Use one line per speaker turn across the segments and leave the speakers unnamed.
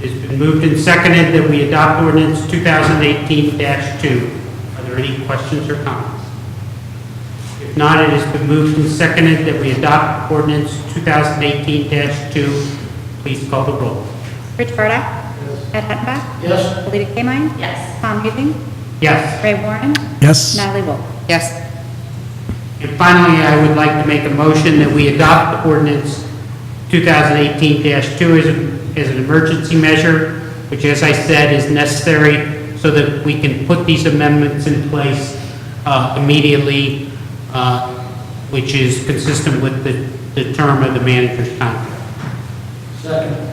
It's been moved and seconded that we adopt ordinance 2018-2. Are there any questions or comments? If not, it has been moved and seconded that we adopt ordinance 2018-2. Please call the roll.
Rich Barda. Ed Hattenbach.
Yes.
Alita Kaymine.
Yes.
Tom Hazen.
Yes.
Ray Warren.
yes,
Natalie Wolf.
Yes.
And finally, I would like to make a motion that we adopt ordinance 2018-2 as, a- as an emergency measure, which, as I said, is necessary so that we can put these amendments in place uh, immediately, uh, which is consistent with the, the term of the manager's contract.
Second.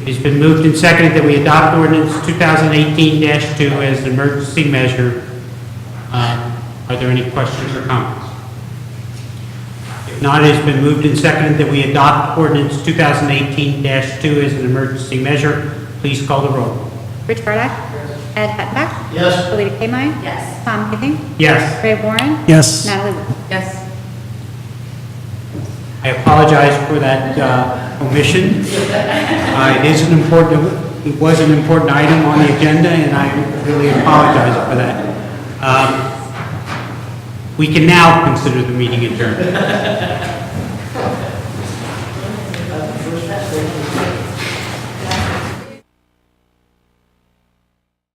It has been moved and seconded that we adopt ordinance 2018-2 as an emergency measure. Uh, Are there any questions or comments? If not, it has been moved and seconded that we adopt ordinance 2018-2 as an emergency measure. Please call the roll.
Rich Barda. Ed Hattenbach.
Yes.
Alita Kaymine.
Yes.
Tom Hazen.
Yes.
Ray Warren.
yes.
Natalie Wolf.
Yes.
I apologize for that uh, omission. Uh, It is an important, it was an important item on the agenda, and I really apologize for that. Um, We can now consider the meeting adjourned.